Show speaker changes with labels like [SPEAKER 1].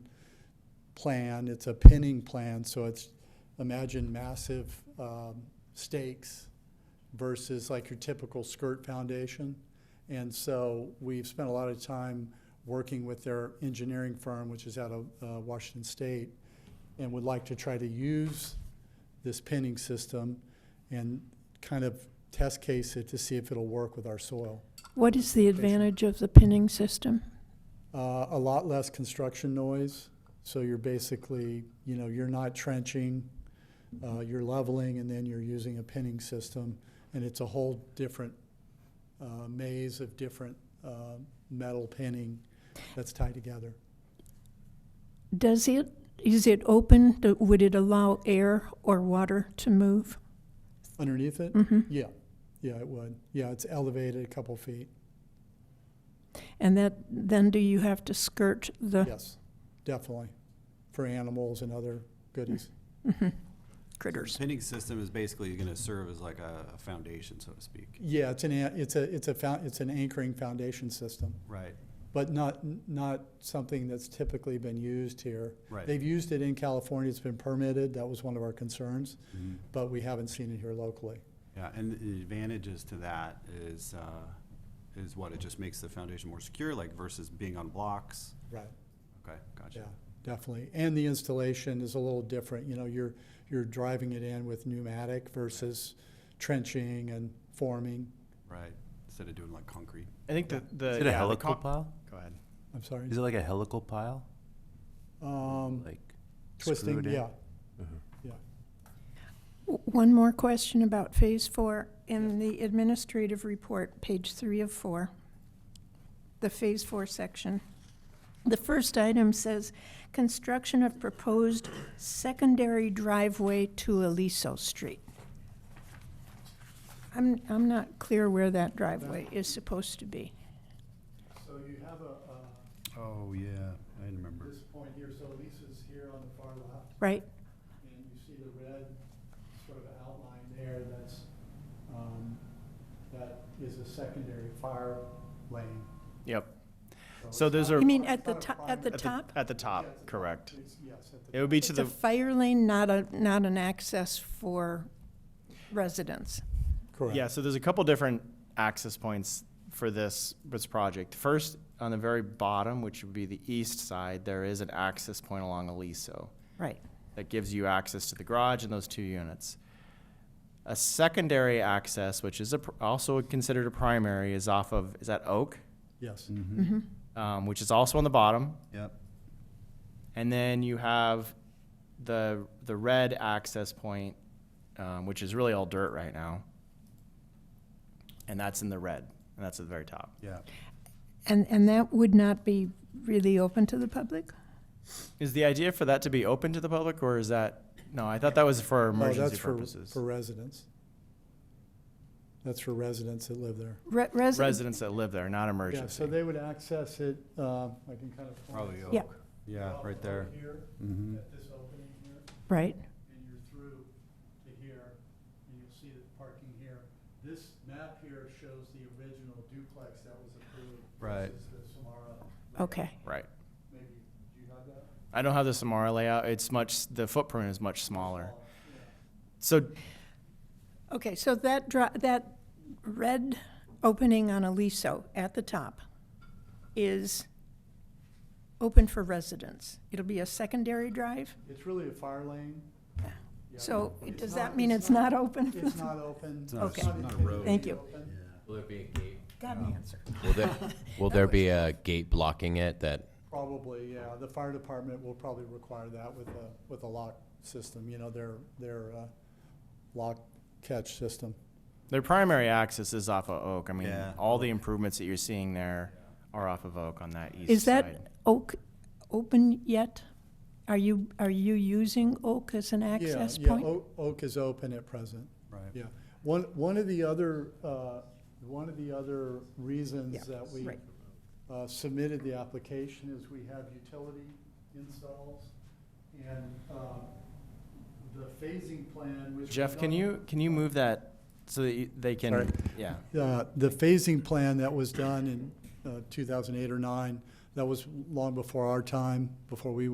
[SPEAKER 1] plan, it's a pinning plan, so it's, imagine massive um, stakes versus like your typical skirt foundation. And so we've spent a lot of time working with their engineering firm, which is out of uh, Washington State, and would like to try to use this pinning system and kind of test case it to see if it'll work with our soil.
[SPEAKER 2] What is the advantage of the pinning system?
[SPEAKER 1] Uh, a lot less construction noise, so you're basically, you know, you're not trenching, uh, you're leveling, and then you're using a pinning system, and it's a whole different uh, maze of different uh, metal pinning that's tied together.
[SPEAKER 2] Does it, is it open? Do- Would it allow air or water to move?
[SPEAKER 1] Underneath it?
[SPEAKER 2] Mhm.
[SPEAKER 1] Yeah, yeah, it would. Yeah, it's elevated a couple feet.
[SPEAKER 2] And that, then do you have to skirt the
[SPEAKER 1] Yes, definitely, for animals and other goodies.
[SPEAKER 2] critters?
[SPEAKER 3] Pinning system is basically going to serve as like a, a foundation, so to speak.
[SPEAKER 1] Yeah, it's an, a- it's a, it's a, fou- it's an anchoring foundation system.
[SPEAKER 3] Right,
[SPEAKER 1] but not, not something that's typically been used here.
[SPEAKER 3] Right.
[SPEAKER 1] They've used it in California, it's been permitted, that was one of our concerns,
[SPEAKER 3] Mhm.
[SPEAKER 1] but we haven't seen it here locally.
[SPEAKER 3] yeah, and the advantages to that is, uh, is what, it just makes the foundation more secure, like versus being on blocks?
[SPEAKER 1] Right.
[SPEAKER 3] Okay,
[SPEAKER 1] Yeah,
[SPEAKER 3] gotcha.
[SPEAKER 1] definitely. And the installation is a little different, you know, you're, you're driving it in with pneumatic versus trenching and forming.
[SPEAKER 3] Right, instead of doing like concrete.
[SPEAKER 4] I think the, the
[SPEAKER 5] Is it a
[SPEAKER 4] yeah, the
[SPEAKER 5] helical
[SPEAKER 4] con-
[SPEAKER 5] pile?
[SPEAKER 3] Go ahead.
[SPEAKER 1] I'm sorry.
[SPEAKER 5] Is it like a helical pile?
[SPEAKER 1] Um,
[SPEAKER 5] Like
[SPEAKER 1] twisting,
[SPEAKER 5] screwed in?
[SPEAKER 1] yeah. Yeah.
[SPEAKER 2] W- One more question about Phase Four. In the administrative report, page three of four, the Phase Four section, the first item says, "Construction of proposed secondary driveway to Aliso Street." I'm, I'm not clear where that driveway is supposed to be.
[SPEAKER 1] So you have a,
[SPEAKER 3] Oh, yeah, I remember.
[SPEAKER 1] point here, so Lisa's here on the far left.
[SPEAKER 2] Right.
[SPEAKER 1] And you see the red sort of outline there, that's, um, that is a secondary fire lane.
[SPEAKER 4] Yep.
[SPEAKER 1] it's
[SPEAKER 4] So those
[SPEAKER 1] not-
[SPEAKER 4] are-
[SPEAKER 2] You mean
[SPEAKER 1] it's
[SPEAKER 2] at the
[SPEAKER 1] not a
[SPEAKER 2] top, at the
[SPEAKER 1] primary-
[SPEAKER 4] At
[SPEAKER 2] top?
[SPEAKER 4] At the top, correct.
[SPEAKER 1] It's- Yes, at the.
[SPEAKER 4] It would be
[SPEAKER 2] It's
[SPEAKER 4] to
[SPEAKER 2] a
[SPEAKER 4] the,
[SPEAKER 2] fire lane, not a, not an access for residents.
[SPEAKER 1] Correct.
[SPEAKER 4] yeah, so there's a couple different access points for this, this project. First, on the very bottom, which would be the east side, there is an access point along Aliso
[SPEAKER 2] Right.
[SPEAKER 4] that gives you access to the garage and those two units. A secondary access, which is a, pr- also considered a primary, is off of, is that Oak?
[SPEAKER 1] Yes,
[SPEAKER 2] Mm-hmm.
[SPEAKER 3] Mhm.
[SPEAKER 4] Um, which is also on the bottom.
[SPEAKER 3] Yep,
[SPEAKER 4] And then you have the the red access point, um, which is really all dirt right now. And that's in the red, and that's at the very top.
[SPEAKER 3] yeah.
[SPEAKER 2] And, and that would not be really open to the public?
[SPEAKER 4] Is the idea for that to be open to the public, or is that no? I thought that was for
[SPEAKER 1] no,
[SPEAKER 4] emergency
[SPEAKER 1] Oh, that's for,
[SPEAKER 4] purposes.
[SPEAKER 1] for residents. That's for residents that live there.
[SPEAKER 2] Re- resi-
[SPEAKER 4] Residents that live there, not emergency.
[SPEAKER 1] Yeah, so they would access it, uh, I can kind of. point
[SPEAKER 3] Probably
[SPEAKER 1] it.
[SPEAKER 3] oak.
[SPEAKER 2] Yeah.
[SPEAKER 3] Yeah,
[SPEAKER 1] Well,
[SPEAKER 3] right there.
[SPEAKER 1] Here,
[SPEAKER 3] Mhm.
[SPEAKER 1] at this opening here.
[SPEAKER 2] Right,
[SPEAKER 1] and you're through to here, and you'll see the parking here. This map here shows the original duplex that was approved.
[SPEAKER 3] Right.
[SPEAKER 1] versus the Samara. layout.
[SPEAKER 2] okay.
[SPEAKER 4] right.
[SPEAKER 1] Maybe, do you have that?
[SPEAKER 4] I don't have the Samara layout. It's much the footprint is much smaller.
[SPEAKER 1] Oh, yeah.
[SPEAKER 4] So
[SPEAKER 2] Okay, so that dri, that red opening on Aliso at the top is open for residents. It'll be a secondary drive?
[SPEAKER 1] It's really a fire lane. Yeah.
[SPEAKER 2] So
[SPEAKER 1] It's
[SPEAKER 2] does
[SPEAKER 1] not-
[SPEAKER 2] that mean it's not open?
[SPEAKER 1] It's not open.
[SPEAKER 3] It's not a-
[SPEAKER 2] Okay.
[SPEAKER 3] not a road.
[SPEAKER 2] Thank you.
[SPEAKER 6] Will there be a gate?
[SPEAKER 2] Got an answer.
[SPEAKER 6] Will there, will there be a gate blocking it that,
[SPEAKER 1] Probably, yeah. The fire department will probably require that with a, with a lock system, you know, their, their uh, lock catch system.
[SPEAKER 4] Their primary axis is off of Oak. I mean,
[SPEAKER 3] Yeah.
[SPEAKER 4] all the improvements that you're seeing there are off of Oak on that east
[SPEAKER 2] Is
[SPEAKER 4] side.
[SPEAKER 2] that oak open yet? Are you, are you using oak as an
[SPEAKER 1] Yeah,
[SPEAKER 2] access
[SPEAKER 1] yeah,
[SPEAKER 2] point?
[SPEAKER 1] Oak- Oak is open at present.
[SPEAKER 3] Right.
[SPEAKER 1] Yeah, one, one of the other, uh, one of the other reasons
[SPEAKER 2] Yeah,
[SPEAKER 1] that we
[SPEAKER 2] right.
[SPEAKER 1] uh, submitted the application is we have utility installs and uh, the phasing plan, which. we
[SPEAKER 4] Jeff, can
[SPEAKER 1] don't-
[SPEAKER 4] you can you move that so that you, they can?
[SPEAKER 1] Sorry.
[SPEAKER 4] Yeah.
[SPEAKER 1] Uh, The phasing plan that was done in uh, 2008 or 9, that was long before our time, before we